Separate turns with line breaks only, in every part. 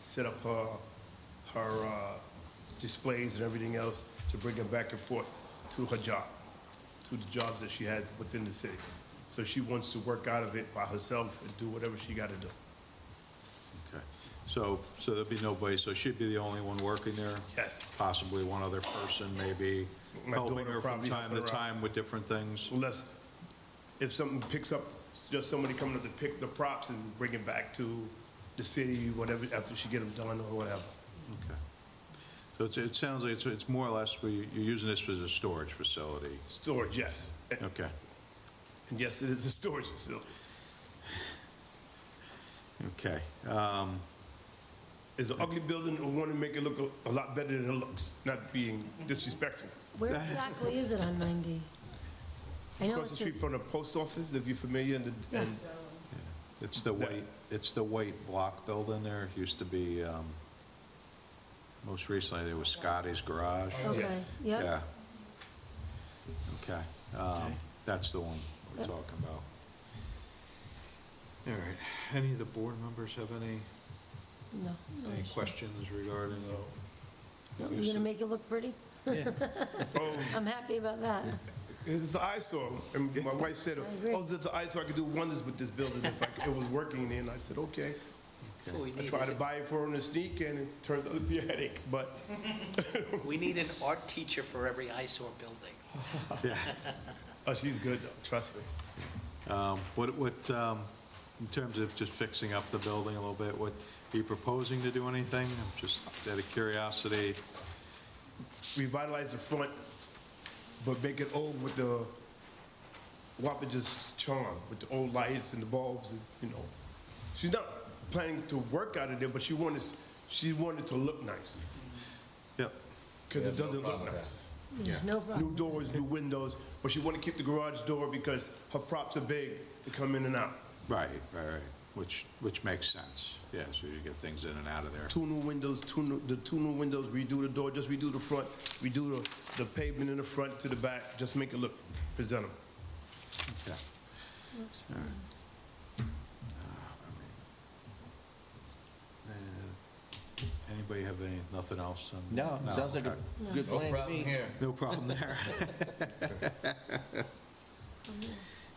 set up her, her uh, displays and everything else to bring them back and forth to her job, to the jobs that she has within the city. So she wants to work out of it by herself and do whatever she got to do.
Okay, so, so there'll be nobody, so she'd be the only one working there?
Yes.
Possibly one other person, maybe
My
helping
daughter
her from
probably
time to
helping her out.
time with different things?
Unless, if something picks up, just somebody coming up to pick the props and bring it back to the city, whatever, after she get them done or whatever.
Okay. So it's, it sounds like it's, it's more or less, we- you're using this as a storage facility?
Storage, yes. And
Okay,
and yes, it is a storage facility.
okay. Um,
It's an ugly building, I want to make it look a- a lot better than it looks, not being disrespectful.
Where exactly is it on 90? I know
Across the
it's
street
just,
from the post office, if you're familiar, and, the- and
It's the
That-
white, it's the white block building there, It used to be, um, most recently, there was Scotty's Garage.
okay,
Yes.
yeah.
Yeah. Okay, um, that's the one we're
Yep.
talking about. All right, any of the board members have any,
No. no
any
issue.
questions regarding?
No, You're going to make it look pretty?
oh,
I'm happy about that.
it's an eyesore. And my wife said,
agree.
oh, it's an eyesore, I could do wonders with this building if I could- it was working. And I said, okay.
So we
I
need,
tried to
is-
buy it for her on the sneak, and it turns out to be a headache, but
we need an art teacher for every eyesore building.
Yeah.
oh, she's good, though, trust me.
Um, What, what, um, in terms of just fixing up the building a little bit, what, are you proposing to do anything? I'm Just out of curiosity,
revitalize the front, but make it old with the Wapage's charm, with the old lights and the bulbs, and, you know. She's not planning to work out of there, but she wanted, she wanted to look nice,
yep,
because it doesn't look nice.
Yeah, No problem.
New doors, new windows, but she want to keep the garage door because her props are big to come in and out.
right, right, right, which, which makes sense, yeah, so you get things in and out of there.
Two new windows, two new, the two new windows, redo the door, just redo the front, redo the, the pavement in the front to the back, just make it look presentable.
Yeah.
Works
All right. Ah,
fine.
Uh, Anybody have any, nothing else? on-
No, sounds like a
okay.
good
No
plan to
problem
me.
here.
No problem there.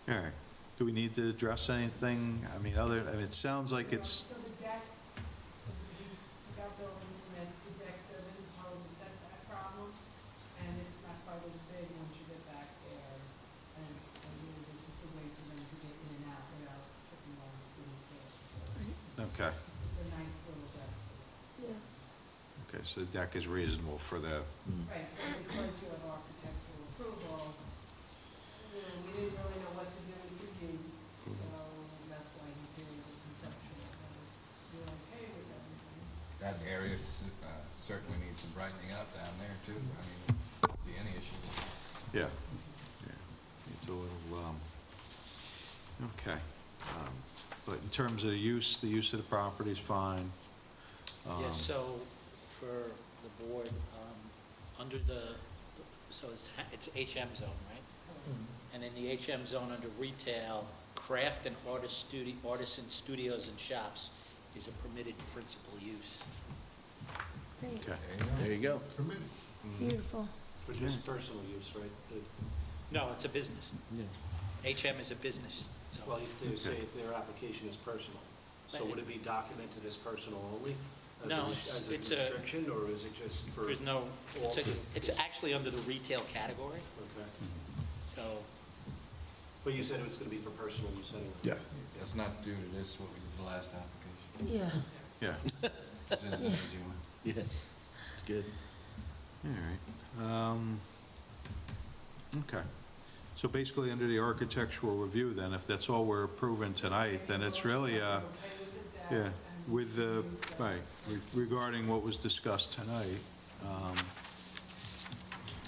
All right. Do we need to address anything? I mean, other, I mean, it sounds like it's,
So the deck, because we took out building permits, the deck doesn't pose a setback problem, and it's not quite as big once you get back there. And it's, and it is just a way for them to get in and out without tripping over school stairs.
okay,
It's a nice little deck.
Yeah.
okay, so the deck is reasonable for the,
Right, so because you have architectural approval, you know, we didn't really know what to do with your use, so that's why he's here as a conceptual. and You're okay with everything.
That area s- uh, certainly needs some brightening up down there, too. I mean, I don't see any issue with that.
yeah. Yeah. It's a little, um, okay. Um, But in terms of the use, the use of the property is fine.
Yeah,
Um,
so for the board, um, under the, so it's, ha- it's HM zone, right? And in the HM zone, under retail, craft and artist studio, artisan studios and shops is a permitted principal use.
Great,
Okay.
There you go.
beautiful.
For just personal use, right? The-
No, it's a business.
Yeah.
HM is a business
Well,
zone.
if they say if their application is personal, so would it be documented as personal only? as a
No,
res- As a
it's a-
restriction, or is it just for?
There's no,
all
it's, a-
the-
it's actually under the retail category,
Okay.
so,
But you said it was going to be for personal use anyway.
Yes.
That's not due to this, what we did the last application.
Yeah.
Yeah.
It's just an easy one.
Yeah, it's good.
All right. Um, Okay. So basically, under the architectural review, then, if that's all we're approving tonight, then it's really, uh, yeah, with the, right, re- regarding what was discussed tonight. Um,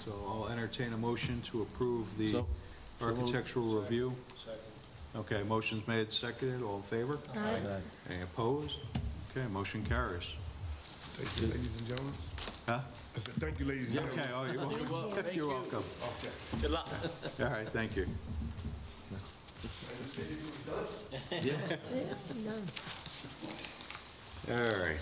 So I'll entertain a motion to approve the
So- so moved.
architectural review.
Second.
Okay, motion's made, seconded, all in favor?
Aye.
Any opposed? Okay, motion carries.
Thank you, ladies and gentlemen. I
Huh?
said, thank you, ladies and
Okay,
gentlemen.
oh, you're welcome. You're welcome.
Okay.
good luck.
All right, thank you.
That's it, I'm done.
All right.